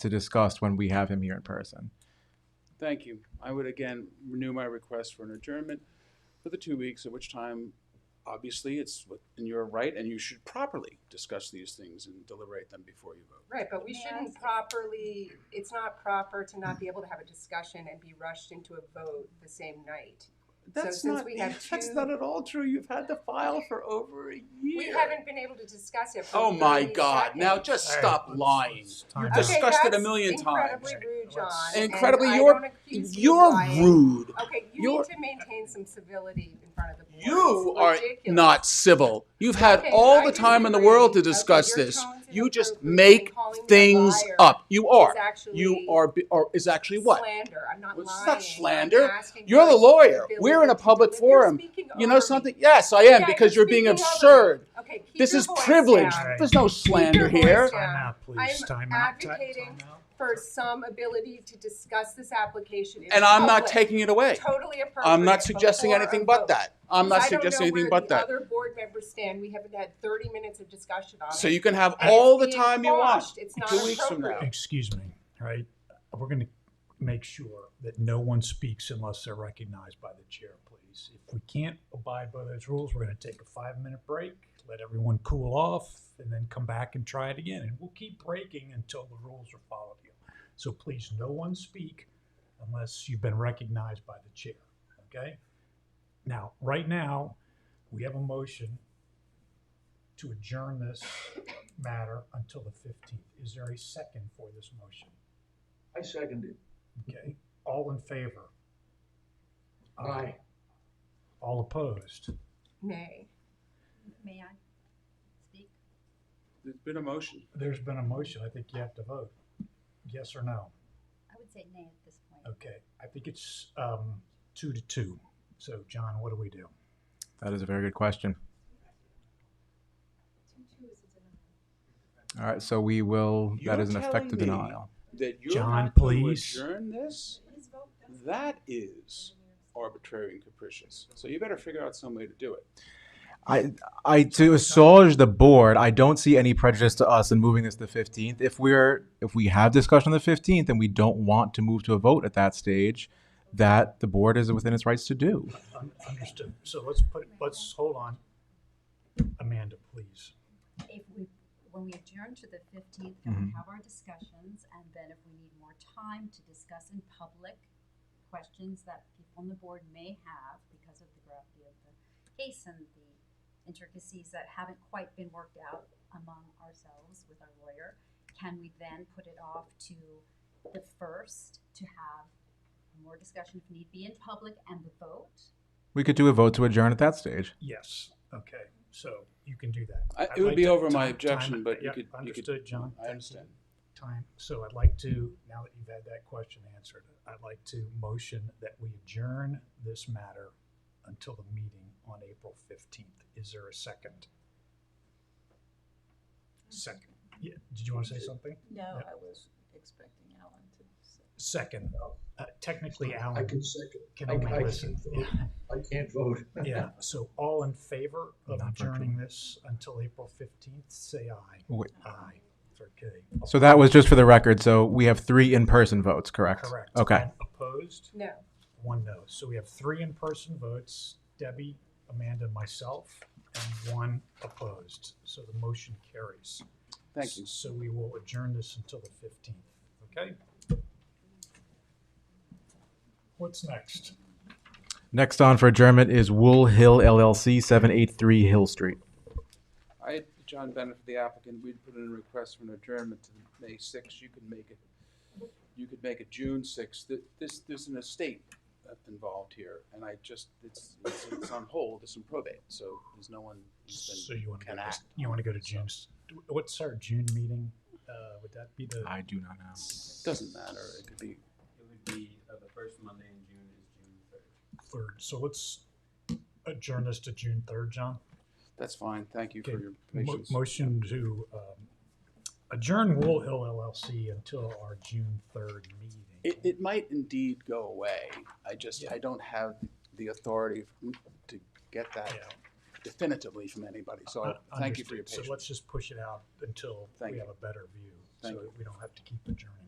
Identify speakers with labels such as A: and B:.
A: to discuss when we have him here in person.
B: Thank you. I would again renew my request for an adjournment for the two weeks, at which time, obviously, it's in your right, and you should properly discuss these things and deliberate them before you vote.
C: Right, but we
D: May I
C: shouldn't
D: ask-
C: properly, it's not proper to not be able to have a discussion and be rushed into a vote the same night. So
B: That's
C: since
B: not,
C: we have
B: that's
C: two-
B: not at all true. You've had the file for over a year.
C: We haven't been able to discuss it for
B: Oh, my
C: 30
B: God. Now
C: seconds.
B: just stop lying.
E: You're
C: Okay,
B: discussed it a
C: that's
B: million times.
C: Incredibly rude, John. and
B: Incredibly,
C: I
B: you're-
C: don't accuse you of
B: You're
C: lying.
B: rude.
C: Okay, you
B: You're-
C: need to maintain some civility in front of the board.
B: You
C: It's
B: are
C: ridiculous.
B: not civil. You've had
C: Okay,
B: all
C: I
B: the time in the world to
C: disagree.
B: discuss
C: Okay, your
B: this.
C: tone's
B: You just
C: inappropriate.
B: make
C: Calling me a
B: things
C: liar
B: up. You
C: is
B: are.
C: actually
B: You are, be- or is actually what?
C: Slander. I'm not
B: Well, it's
C: lying.
B: not slander.
C: I'm asking
B: You're the
C: for
B: lawyer.
C: civility
B: We're in a
C: to
B: public
C: deliver-
B: forum.
C: You're speaking
B: You
C: over
B: know
C: me.
B: something? Yes, I am,
C: Yeah,
B: because you're being
C: speaking over me.
B: absurd.
C: Okay, keep
B: This
C: your
B: is
C: voice
B: privilege.
C: down.
B: There's no slander
C: your voice
B: here.
C: down.
E: Time out, please.
C: I'm
E: Time out. Ti-
C: advocating
E: time out.
C: For some ability to discuss this application. in
B: And I'm not
C: public.
B: taking it away.
C: Totally appropriate.
B: I'm not suggesting
C: before
B: anything
C: a
B: but
C: vote.
B: that. I'm not
C: I don't know
B: suggesting anything
C: where
B: but that.
C: The other board members stand. We haven't had thirty minutes of discussion on it.
B: So you can have
C: And
B: all
C: it's
B: the
C: being
B: time you want.
C: quashed. It's not
B: Two weeks from
C: appropriate.
B: now.
E: Excuse me, all right? We're going to make sure that no one speaks unless they're recognized by the chair, please. If we can't abide by those rules, we're going to take a five-minute break, let everyone cool off, and then come back and try it again. And we'll keep breaking until the rules are followed here. So please, no one speak unless you've been recognized by the chair, okay? Now, right now, we have a motion to adjourn this matter until the fifteenth. Is there a second for this motion?
F: I second it.
E: Okay, all in favor?
F: Aye.
E: All opposed?
C: Nay.
D: May I speak?
B: There's been a motion.
E: There's been a motion. I think you have to vote. Yes or no?
D: I would say nay at this point.
E: Okay, I think it's, um, two to two. So, John, what do we do?
A: That is a very good question. All right, so we will, that
B: You're
A: is an effective
B: telling me-
A: denial.
B: That you're
E: John,
B: not going to
E: please.
B: adjourn this? That is arbitrary and capricious. So you better figure out some way to do it.
A: I, I to assuage the board, I don't see any prejudice to us in moving this to the fifteenth. If we're if we have discussion on the fifteenth and we don't want to move to a vote at that stage, that the board is within its rights to do.
E: Un- Understood. So let's put, let's, hold on. Amanda, please.
D: If we, when we adjourn to the fifteenth, and we have our discussions, and then if we need more time to discuss in public questions that people on the board may have because of the gravity of the case and the intricacies that haven't quite been worked out among ourselves with our lawyer, can we then put it off to the first to have more discussion if need be in public and the vote?
A: We could do a vote to adjourn at that stage.
E: Yes, okay, so you can do that.
B: I- it
E: I'd
B: would
E: like
B: be
E: to-
B: over my
E: time-
B: objection,
E: time-
B: but you
E: yeah,
B: could- you could-
E: Understood, John.
B: I understand.
E: Time, so I'd like to, now that you've had that question answered, I'd like to motion that we adjourn this matter until the meeting on April fifteenth. Is there a second? Second, yeah, did you want to say something?
G: No,
E: Yep.
G: I was expecting Alan to say.
E: Second, uh, technically
F: I
E: Alan
F: can second.
E: can
F: I- I
E: only
F: can
E: listen.
F: vote. I can't vote.
E: Yeah, so all in favor of
A: Not virtual.
E: adjourning this until April fifteenth, say aye.
A: Wait.
E: Aye, it's okay.
A: So that was just for the record. So we have three in-person votes, correct?
E: Correct.
A: Okay.
E: And Opposed,
C: No.
E: one no. So we have three in-person votes, Debbie, Amanda, myself, and one opposed. So the motion carries.
B: Thank you.
E: So we will adjourn this until the fifteenth, okay? What's next?
A: Next on for adjournment is Wool Hill LLC, seven eight three Hill Street.
B: I, John Bennett, for the applicant, we'd put in a request for an adjournment to the May sixth. You could make it, you could make it June sixth. This, there's an estate uh, involved here, and I just, it's, it's it's on hold, it's in probate, so there's no one who's been.
E: So you want to go
B: can
E: to,
B: act
E: you
B: on
E: want to go
B: it,
E: to
B: so.
E: June's, what's our June meeting? Uh, would that be the?
A: I do not know.
B: Doesn't matter, it could be,
H: It would be, uh, the first Monday in June is June third.
E: third. So let's adjourn this to June third, John.
B: that's fine, thank you for
E: Okay.
B: your
E: Mo-
B: patience.
E: Motion to um, adjourn Wool Hill LLC until our June third meeting.
B: It, it might indeed go away, I just, I don't have the authority to get that
E: Yeah.
B: definitively from anybody, so
E: Un-
B: thank you for your
E: understood.
B: patience.
E: So let's just push it out until
B: Thank
E: we
B: you.
E: have a better view,
B: Thank
E: so
B: you.
E: we don't have to keep adjourning